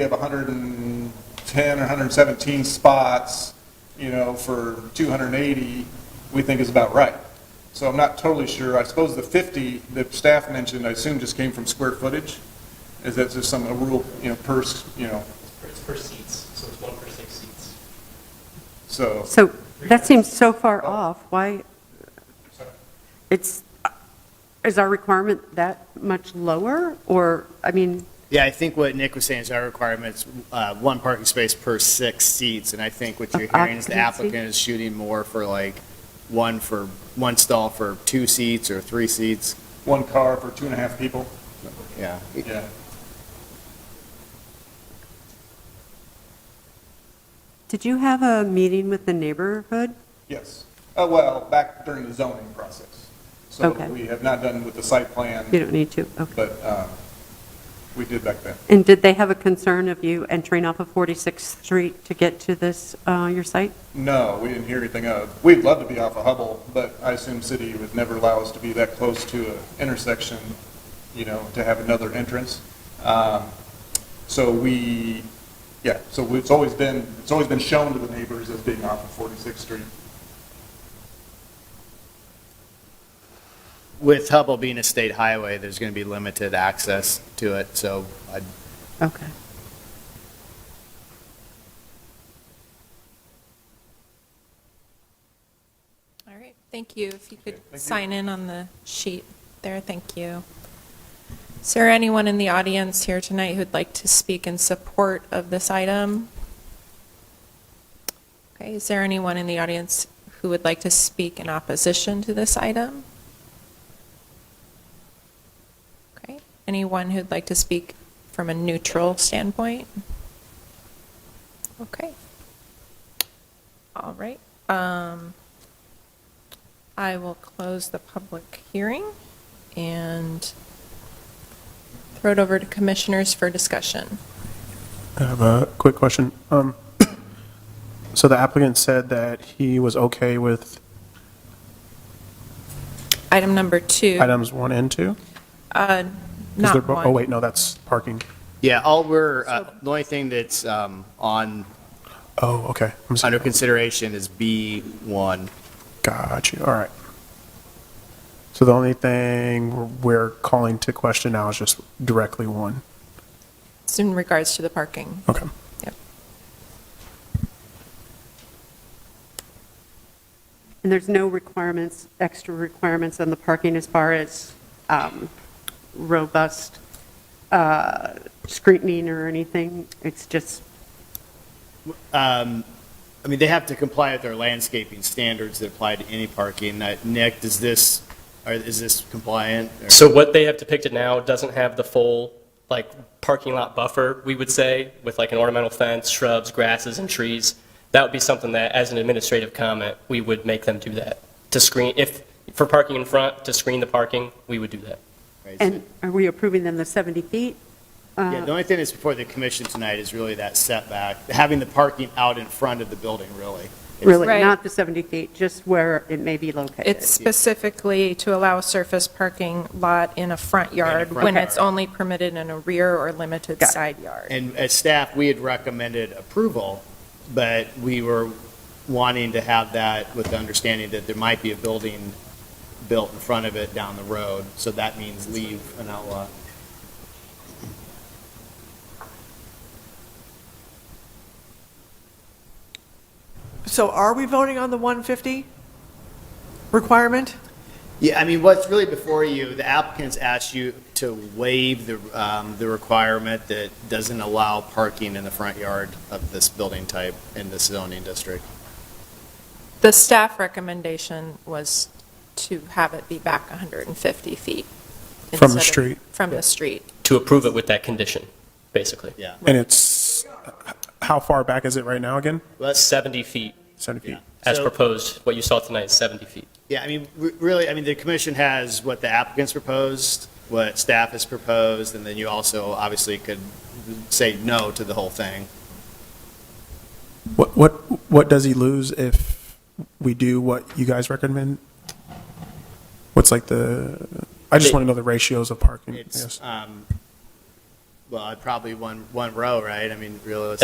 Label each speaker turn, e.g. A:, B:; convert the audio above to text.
A: we have 110 or 117 spots, you know, for 280, we think is about right. So I'm not totally sure. I suppose the 50 that staff mentioned, I assume just came from square footage? Is that just some, a rule, you know, per, s- you know,
B: It's per seats, so it's one per six seats.
A: so,
C: So that seems so far off. Why, it's, is our requirement that much lower? Or, I mean,
D: Yeah, I think what Nick was saying is our requirement's uh, one parking space per six seats, and I think what you're
C: Of
D: hearing is the
C: occupancy?
D: applicant is shooting more for like one for, one stall for two seats or three seats,
A: one car for two and a half people?
D: yeah.
A: Yeah.
C: did you have a meeting with the neighborhood?
A: Yes. Uh, well, back during the zoning process. So
C: Okay.
A: we have not done with the site
C: You
A: plan,
C: don't need to, okay.
A: but, uh, we did back then.
C: And did they have a concern of you entering off of 46th Street to get to this, uh, your site?
A: No, we didn't hear anything of. We'd love to be off of Hubble, but I assume city would never allow us to be that close to an intersection, you know, to have another entrance. Um, So we, yeah, so it's always been, it's always been shown to the neighbors as being off of 46th Street.
D: With Hubble being a state highway, there's going to be limited access to it, so uh, I
C: Okay.
E: All right, thank you. If you
A: Okay,
E: could
A: thank you.
E: sign in on the sheet there, thank you. Is there anyone in the audience here tonight who'd like to speak in support of this item? Okay, is there anyone in the audience who would like to speak in opposition to this item? Okay, anyone who'd like to speak from a neutral standpoint? Okay. All right. Um, I will close the public hearing and throw it over to commissioners for discussion.
F: I have a quick question. Um, So the applicant said that he was okay with
E: Item number two.
F: items one and two? 'Cause
E: Uh,
F: they're
E: not
F: bo-
E: one.
F: Oh, wait, no, that's parking.
D: Yeah, all we're, uh, the only thing that's um, on,
F: Oh, okay. I'm
D: under
F: sorry.
D: consideration is B1.
F: Got you, all right. So the only thing we're calling to question now is just directly one.
E: It's in regards to the parking.
F: Okay.
E: Yep.
C: And there's no requirements, extra requirements on the parking as far as um, robust uh, screening or anything? It's just,
D: Um, I mean, they have to comply with their landscaping standards that apply to any parking. Uh, Nick, does this, or is this compliant? or-
B: So what they have depicted now doesn't have the full, like, parking lot buffer, we would say, with like an ornamental fence, shrubs, grasses, and trees. That would be something that, as an administrative comment, we would make them do that. To screen, if, for parking in front, to screen the parking, we would do that.
C: and are we approving them the 70 feet? Uh,
D: Yeah, the only thing that's before the commission tonight is really that setback, having the parking out in front of the building, really. It's-
C: Really,
E: Right.
C: not the 70 feet, just where it may be located?
E: It's specifically to allow surface parking lot in a front yard
D: front
E: when
D: yard.
E: it's only permitted in a rear or limited
C: Got it.
E: side yard.
D: And as staff, we had recommended approval, but we were wanting to have that with the understanding that there might be a building built in front of it down the road, so that means leave an outlot.
G: So are we voting on the 150 requirement?
D: Yeah, I mean, what's really before you, the applicants asked you to waive the, um, the requirement that doesn't allow parking in the front yard of this building type in this zoning district.
E: The staff recommendation was to have it be back 150 feet.
F: From the
E: instead of-
F: street.
E: From the street.
B: To approve it with that condition, basically.
D: Yeah.
F: And it's, how far back is it right now again?
D: Let's
B: 70 feet,
F: 70 feet?
B: as
D: So-
B: proposed, what you saw tonight is 70 feet.
D: Yeah, I mean, re- really, I mean, the commission has what the applicants proposed, what staff has proposed, and then you also obviously could say no to the whole thing.
F: What, what, what does he lose if we do what you guys recommend? What's like the, I just want to know the ratios of parking.
D: It's,
F: yes.
D: um, well, probably one, one row, right? I mean, realistically.